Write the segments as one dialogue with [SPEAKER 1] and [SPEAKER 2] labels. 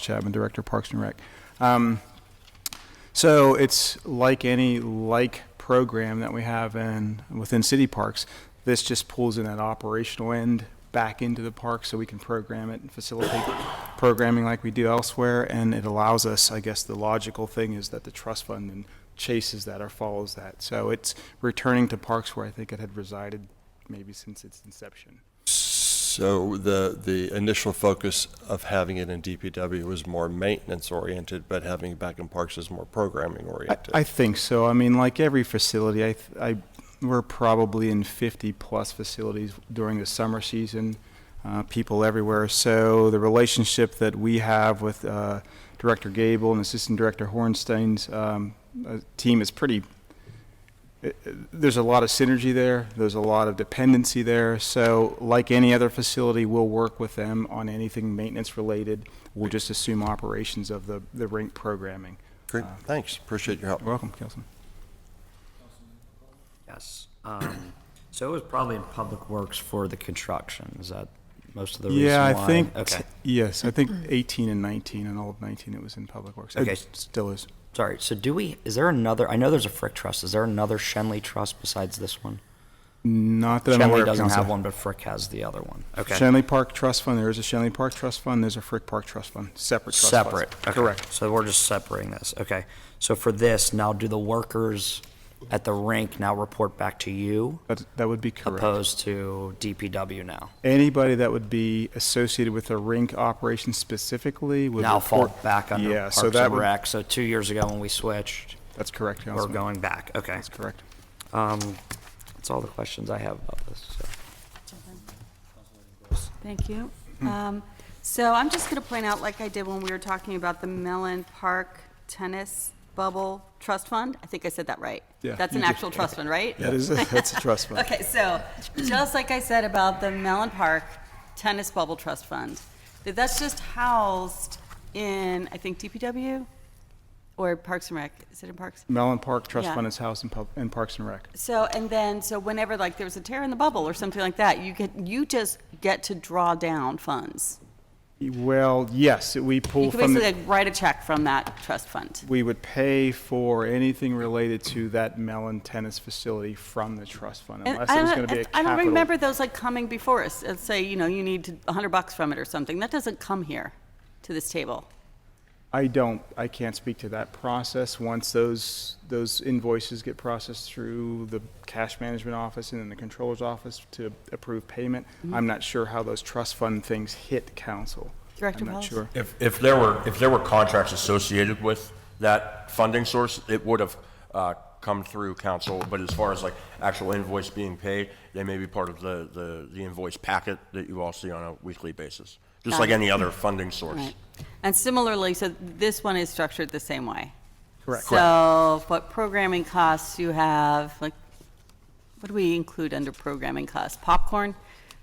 [SPEAKER 1] Chapman, Director, Parks and Rec. Um, so it's like any like program that we have in, within city parks. This just pulls in that operational end back into the park so we can program it and facilitate programming like we do elsewhere. And it allows us, I guess the logical thing is that the trust fund then chases that or follows that. So it's returning to parks where I think it had resided maybe since its inception.
[SPEAKER 2] So the, the initial focus of having it in DPW was more maintenance oriented, but having it back in parks is more programming
[SPEAKER 1] I,
[SPEAKER 2] oriented.
[SPEAKER 1] I think so. I mean, like every facility, I, th- I, we're probably in 50-plus facilities during the summer season, uh, people everywhere. So the relationship that we have with uh, Director Gable and Assistant Director Hornstein's um, uh, team is pretty, it- it- there's a lot of synergy there, there's a lot of dependency there. So like any other facility, we'll work with them on anything maintenance-related. We'll just assume operations of the, the rink programming.
[SPEAKER 2] Great, thanks, appreciate your help.
[SPEAKER 1] You're welcome, Councilman.
[SPEAKER 3] Yes. um, So it was probably in Public Works for the construction. Is that most of the reason why?
[SPEAKER 1] Yeah, I think,
[SPEAKER 3] Okay,
[SPEAKER 1] yes, I think 18 and 19 and all of 19, it was in Public Works. It
[SPEAKER 3] Okay.
[SPEAKER 1] Still is.
[SPEAKER 3] sorry. So do we, is there another, I know there's a Frick Trust. Is there another Shenley Trust besides this one?
[SPEAKER 1] Not that I'm aware
[SPEAKER 3] Shenley
[SPEAKER 1] of.
[SPEAKER 3] doesn't have
[SPEAKER 1] Council.
[SPEAKER 3] one, but Frick has the other one. Okay.
[SPEAKER 1] Shenley Park Trust Fund, there is a Shenley Park Trust Fund, there's a Frick Park Trust Fund, separate trust funds.
[SPEAKER 3] Separate. okay.
[SPEAKER 1] Correct.
[SPEAKER 3] So we're just separating this. Okay. So for this, now do the workers at the rink now report back to you
[SPEAKER 1] That, that would be correct.
[SPEAKER 3] opposed to DPW now?
[SPEAKER 1] Anybody that would be associated with a rink operation specifically would
[SPEAKER 3] Now fall
[SPEAKER 1] report-
[SPEAKER 3] back under
[SPEAKER 1] Yeah,
[SPEAKER 3] Parks
[SPEAKER 1] so that
[SPEAKER 3] and
[SPEAKER 1] would,
[SPEAKER 3] Rec. So two years ago when we switched,
[SPEAKER 1] that's correct,
[SPEAKER 3] we're
[SPEAKER 1] Councilman.
[SPEAKER 3] going back. Okay.
[SPEAKER 1] That's correct.
[SPEAKER 3] Um, that's all the questions I have about this, so.
[SPEAKER 4] Thank you. Um, So I'm just going to point out, like I did when we were talking about the Mellon Park Tennis Bubble Trust Fund, I think I said that right.
[SPEAKER 1] Yeah,
[SPEAKER 4] That's
[SPEAKER 1] you
[SPEAKER 4] an
[SPEAKER 1] did.
[SPEAKER 4] actual trust fund, right?
[SPEAKER 1] That is, that's a trust fund.
[SPEAKER 4] Okay, so just like I said about the Mellon Park Tennis Bubble Trust Fund, that that's just housed in, I think, DPW or Parks and Rec. Is it in Parks?
[SPEAKER 1] Mellon Park Trust
[SPEAKER 4] Yeah.
[SPEAKER 1] Fund is housed in, Pub- in Parks and Rec.
[SPEAKER 4] So, and then, so whenever, like, there was a tear in the bubble or something like that, you get, you just get to draw down funds.
[SPEAKER 1] Well, yes, we pull
[SPEAKER 4] You can
[SPEAKER 1] from the.
[SPEAKER 4] basically like, write a check from that trust fund.
[SPEAKER 1] we would pay for anything related to that Mellon tennis facility from the trust fund,
[SPEAKER 4] And
[SPEAKER 1] unless
[SPEAKER 4] I
[SPEAKER 1] it was
[SPEAKER 4] don't-
[SPEAKER 1] going to be a
[SPEAKER 4] I
[SPEAKER 1] capital.
[SPEAKER 4] don't remember those like coming before us, and say, you know, you need a hundred bucks from it or something. That doesn't come here to this table.
[SPEAKER 1] I don't, I can't speak to that process. Once those, those invoices get processed through the cash management office and then the controller's office to approve payment,
[SPEAKER 4] Mm-hmm.
[SPEAKER 1] I'm not sure how those trust fund things hit council.
[SPEAKER 4] Director
[SPEAKER 1] I'm not
[SPEAKER 4] Wallace?
[SPEAKER 1] sure.
[SPEAKER 5] If, if there were, if there were contracts associated with that funding source, it would have uh, come through council, but as far as like actual invoice being paid, they may be part of the, the, the invoice packet that you all see on a weekly basis, just
[SPEAKER 4] Got
[SPEAKER 5] like
[SPEAKER 4] it.
[SPEAKER 5] any other funding source.
[SPEAKER 4] Right. And similarly, so this one is structured the same way.
[SPEAKER 1] Correct.
[SPEAKER 4] So what programming costs you have, like, what do we include under programming costs? Popcorn?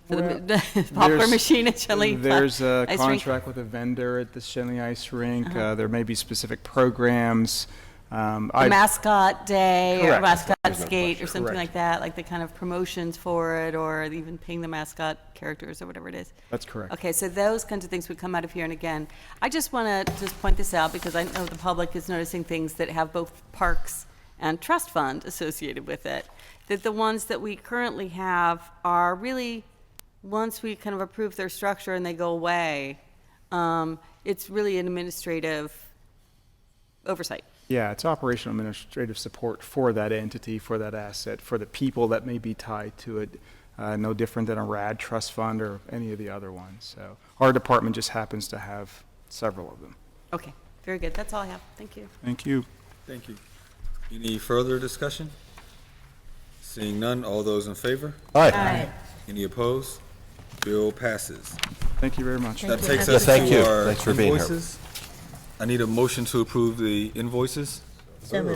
[SPEAKER 4] For the
[SPEAKER 1] There's-
[SPEAKER 4] popcorn machine at Chili?
[SPEAKER 1] There's a
[SPEAKER 4] ice rink? Uh-huh.
[SPEAKER 1] contract with a vendor at the Shenley Ice Rink. Uh, There may be specific programs. Um,
[SPEAKER 4] the
[SPEAKER 1] I-
[SPEAKER 4] mascot day or
[SPEAKER 1] Correct.
[SPEAKER 4] mascot skate or something
[SPEAKER 1] Correct.
[SPEAKER 4] like that, like the kind of promotions for it or even paying the mascot characters or whatever it is.
[SPEAKER 1] That's correct.
[SPEAKER 4] Okay, so those kinds of things would come out of here. And again, I just want to just point this out because I know the public is noticing things that have both parks and trust fund associated with it. That the ones that we currently have are really, once we kind of approve their structure and they go away, um, it's really an administrative oversight.
[SPEAKER 1] Yeah, it's operational administrative support for that entity, for that asset, for the people that may be tied to it. Uh, no different than a RAD trust fund or any of the other ones. So our department just happens to have several of them.
[SPEAKER 4] Okay, very good. That's all I have. Thank you.
[SPEAKER 1] Thank you.
[SPEAKER 6] Thank you. Any further discussion? Seeing none, all those in favor? Any opposed? Bill passes.
[SPEAKER 1] Thank you very much.
[SPEAKER 6] That takes us
[SPEAKER 2] Thank you.
[SPEAKER 6] to our
[SPEAKER 2] Thanks for being here.
[SPEAKER 6] invoices. I need a motion to approve the invoices. Now,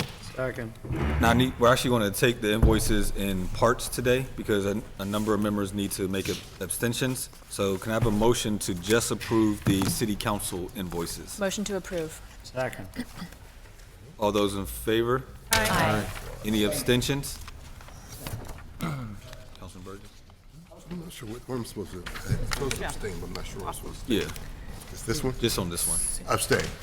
[SPEAKER 6] I need, we're actually going to take the invoices in parts today because a, a number of members need to make abstentions. So can I have a motion to just approve the city council invoices?
[SPEAKER 7] Motion to approve.
[SPEAKER 3] Second.
[SPEAKER 6] All those in favor?
[SPEAKER 7] Aye.
[SPEAKER 6] Any abstentions? Councilman Burgess?
[SPEAKER 8] uh, I'm not sure what, what I'm supposed to, I'm supposed to abstain, but I'm not sure what I'm supposed to.
[SPEAKER 6] Yeah.
[SPEAKER 8] It's This one?
[SPEAKER 9] Just on this one.
[SPEAKER 8] Abstain.